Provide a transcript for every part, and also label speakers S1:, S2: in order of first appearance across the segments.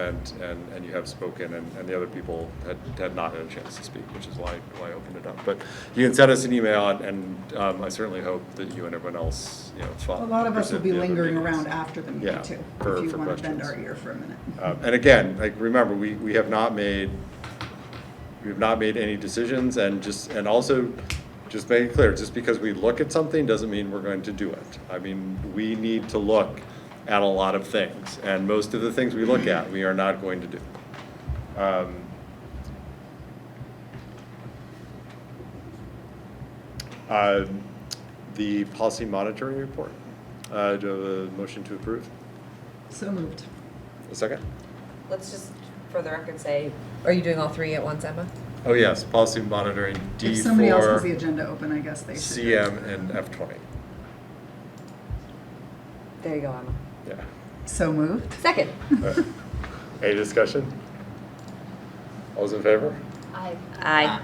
S1: and, and, and you have spoken, and, and the other people had, had not had a chance to speak, which is why, why I opened it up. But you can send us an email, and, and um, I certainly hope that you and everyone else, you know, follow.
S2: A lot of us will be lingering around after the
S1: Yeah,
S2: meeting too,
S1: for-
S2: if you
S1: for
S2: want to bend
S1: questions.
S2: our ear for a minute.
S1: Um, And again, like, remember, we, we have not made, we have not made any decisions, and just, and also, just make it clear, just because we look at something doesn't mean we're going to do it. I mean, we need to look at a lot of things, and most of the things we look at, we are not going to do. Um, um, The policy monitoring report, uh, do I have a motion to approve?
S2: So moved.
S1: A second?
S3: Let's just, for the record, say, are you doing all three at once, Emma?
S1: Oh, yes, policy monitoring, D
S2: If somebody else has the
S1: four,
S2: agenda open, I guess they should.
S1: CM, and F twenty.
S3: There you go, Emma.
S1: Yeah.
S2: So moved.
S3: Second.
S1: Alright. Any discussion? All those in favor?
S4: Aye.
S3: Aye.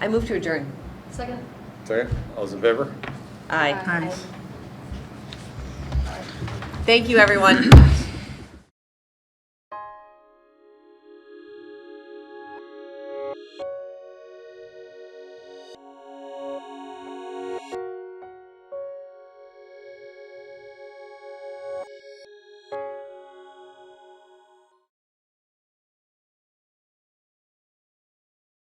S3: I move to adjourn.
S4: Second?
S1: Second, all those in favor?
S3: Aye.
S2: Aye.
S3: Thank you, everyone.